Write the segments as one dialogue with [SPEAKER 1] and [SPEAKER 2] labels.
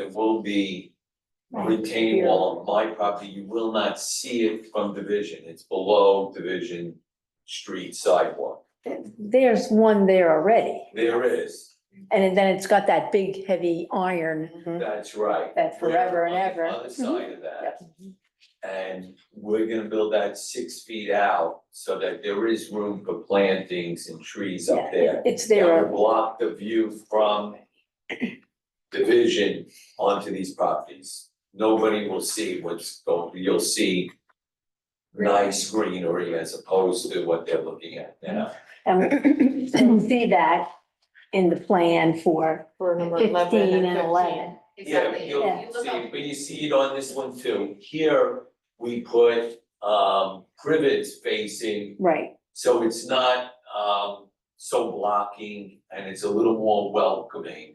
[SPEAKER 1] There will be a retaining wall on my property, you will not see it from division, it's below division street sidewalk.
[SPEAKER 2] There's one there already,
[SPEAKER 1] There is,
[SPEAKER 2] and then it's got that big heavy iron
[SPEAKER 1] that's right.
[SPEAKER 2] that Mm-hmm. forever and
[SPEAKER 1] We're on the
[SPEAKER 2] ever. Mm-hmm.
[SPEAKER 1] Other side of that. And we're gonna build that six feet out so that there is room for plantings and trees up
[SPEAKER 2] Yeah,
[SPEAKER 1] there.
[SPEAKER 2] it- It's
[SPEAKER 1] That
[SPEAKER 2] there,
[SPEAKER 1] will block the view from division onto these properties. Nobody will see what's going, you'll see nice greenery as opposed to what they're looking at now.
[SPEAKER 2] Um, and we'll see that in the plan for
[SPEAKER 3] For number
[SPEAKER 2] fifteen and eleven.
[SPEAKER 1] Yeah,
[SPEAKER 3] Exactly.
[SPEAKER 1] you'll
[SPEAKER 3] You look
[SPEAKER 1] see,
[SPEAKER 3] up-
[SPEAKER 1] but you see it on this one too. Here, we put um privets facing
[SPEAKER 2] Right,
[SPEAKER 1] So it's not um so blocking and it's a little more welcoming.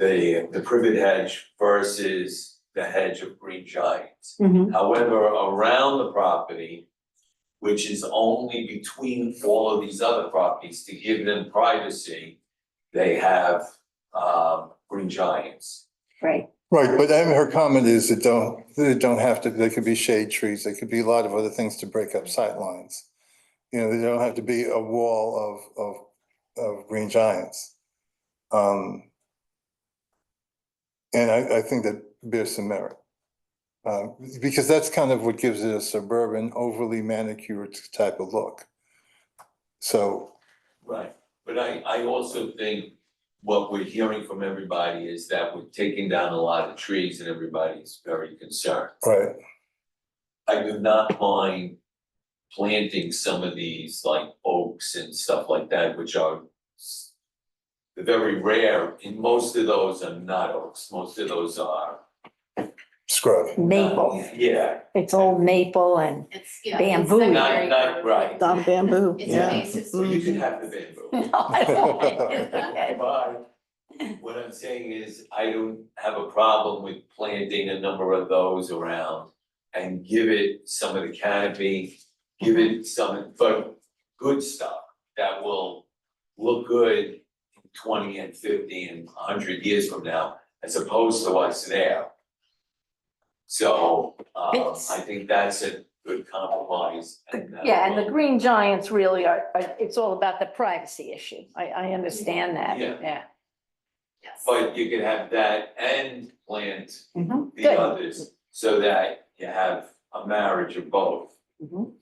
[SPEAKER 1] The the privet hedge versus the hedge of green giants.
[SPEAKER 2] mhm,
[SPEAKER 1] However, around the property, which is only between all of these other properties to give them privacy, they have um green giants.
[SPEAKER 2] right,
[SPEAKER 4] Right, but I mean, her comment is it don't, they don't have to, they could be shade trees, they could be a lot of other things to break up sight lines. You know, they don't have to be a wall of, of, of green giants. Um, and I, I think that bears some merit. Uh, because that's kind of what gives it a suburban overly manicured type of look. So,
[SPEAKER 1] Right. But I I also think what we're hearing from everybody is that we're taking down a lot of trees and everybody's very concerned.
[SPEAKER 4] right,
[SPEAKER 1] I do not mind planting some of these like oaks and stuff like that, which are s- they're very rare, and most of those are not oaks, most of those are. uh,
[SPEAKER 4] scrub.
[SPEAKER 2] maple,
[SPEAKER 1] Yeah,
[SPEAKER 2] it's old maple and
[SPEAKER 3] It's, yeah.
[SPEAKER 2] Bamboo.
[SPEAKER 3] it's
[SPEAKER 1] Not- not
[SPEAKER 3] secondary.
[SPEAKER 1] right.
[SPEAKER 5] On bamboo,
[SPEAKER 3] It's
[SPEAKER 5] yeah.
[SPEAKER 3] invasive
[SPEAKER 1] Well, you can
[SPEAKER 3] species.
[SPEAKER 1] have the bamboo.
[SPEAKER 2] No, I don't want it.
[SPEAKER 1] But what I'm saying is, I don't have a problem with planting a number of those around and give it some of the canopy, give it some, but good stuff that will look good in twenty and fifty and hundred years from now, as opposed to what's there. So, um,
[SPEAKER 2] It's-
[SPEAKER 1] I think that's a good compromise and that
[SPEAKER 2] Yeah, and the
[SPEAKER 1] will-
[SPEAKER 2] green giants really are, are- it's all about the privacy issue, I, I understand that,
[SPEAKER 1] Yeah.
[SPEAKER 2] yeah.
[SPEAKER 3] Yes.
[SPEAKER 1] But you can have that and plant
[SPEAKER 2] Mhm,
[SPEAKER 1] the
[SPEAKER 2] Good,
[SPEAKER 1] others, so that you have a marriage of both.
[SPEAKER 2] Mhm,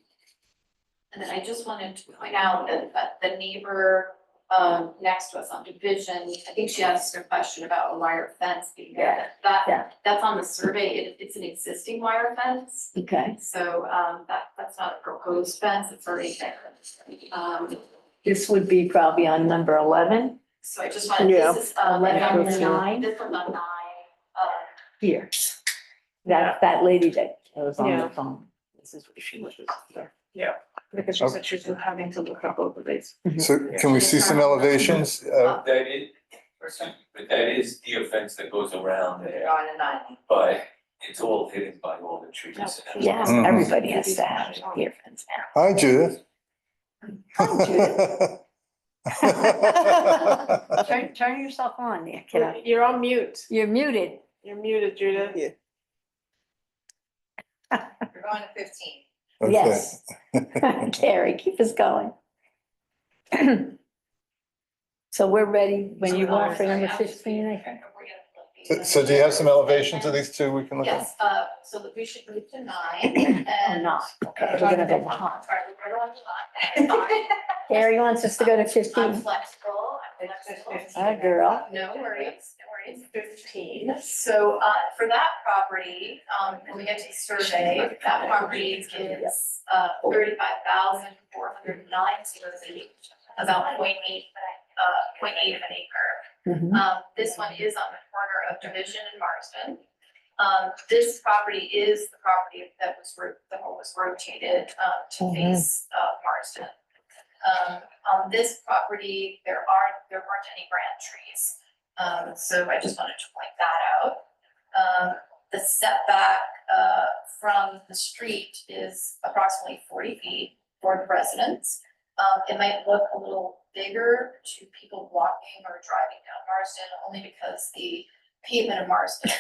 [SPEAKER 3] And then I just wanted to point out that, that the neighbor, um, next to us on Division, I think she asked a question about a wire fence being there.
[SPEAKER 2] yeah.
[SPEAKER 3] That, that's on the survey, it, it's an existing wire fence,
[SPEAKER 2] okay,
[SPEAKER 3] so, um, that, that's not a proposed fence, it's already there. Um,
[SPEAKER 2] this would be probably on number eleven
[SPEAKER 3] so I just wanted, this is, um,
[SPEAKER 2] Eleven
[SPEAKER 3] this is
[SPEAKER 2] nine.
[SPEAKER 3] on the nine, um,
[SPEAKER 2] here. That, that lady that was on the
[SPEAKER 6] Yeah.
[SPEAKER 2] phone. This is what she was after.
[SPEAKER 6] Because she said she's having to look up over these.
[SPEAKER 4] So can we see some elevations? Uh,
[SPEAKER 1] That is, but that is the offense that goes around there,
[SPEAKER 3] nine and nine.
[SPEAKER 1] but it's all hidden by all the trees. and-
[SPEAKER 2] Yeah,
[SPEAKER 4] Mhm.
[SPEAKER 2] everybody has to have ear fence now.
[SPEAKER 4] Hi Judith.
[SPEAKER 2] Hi, Judith.
[SPEAKER 4] Judith.
[SPEAKER 2] Turn, turn yourself on there, kiddo.
[SPEAKER 6] You're on mute.
[SPEAKER 2] You're muted.
[SPEAKER 6] You're muted, Judith.
[SPEAKER 5] Yeah.
[SPEAKER 3] We're going to fifteen.
[SPEAKER 2] Yes. Carrie, keep us going. So we're ready when you are for number fifteen, I think.
[SPEAKER 4] So do you have some elevations of these two we can look at?
[SPEAKER 3] Yes, uh, so that we should move to nine and.
[SPEAKER 2] Not, okay, we're gonna go behind.
[SPEAKER 3] Sorry, we're going to nine.
[SPEAKER 2] Carrie wants us to go to
[SPEAKER 3] I'm
[SPEAKER 2] fifteen.
[SPEAKER 3] flexible, I'm flexible.
[SPEAKER 2] Hi, girl.
[SPEAKER 3] No worries, no worries, fifteen. So, uh, for that property, um, when we get to the survey, that property is, uh, thirty-five thousand four hundred nine zero feet, about point eight, uh, point eight of an acre.
[SPEAKER 2] Mhm.
[SPEAKER 3] Um, this one is on the corner of Division and Marsden. Um, this property is the property that was, ro- the home was rotated, uh, to face, uh, Marsden. Um, on this property, there aren't, there weren't any grand trees, um, so I just wanted to point that out. Um, the setback, uh, from the street is approximately forty feet for the residents. Um, it might look a little bigger to people walking or driving down Marsden, only because the pavement in Marston.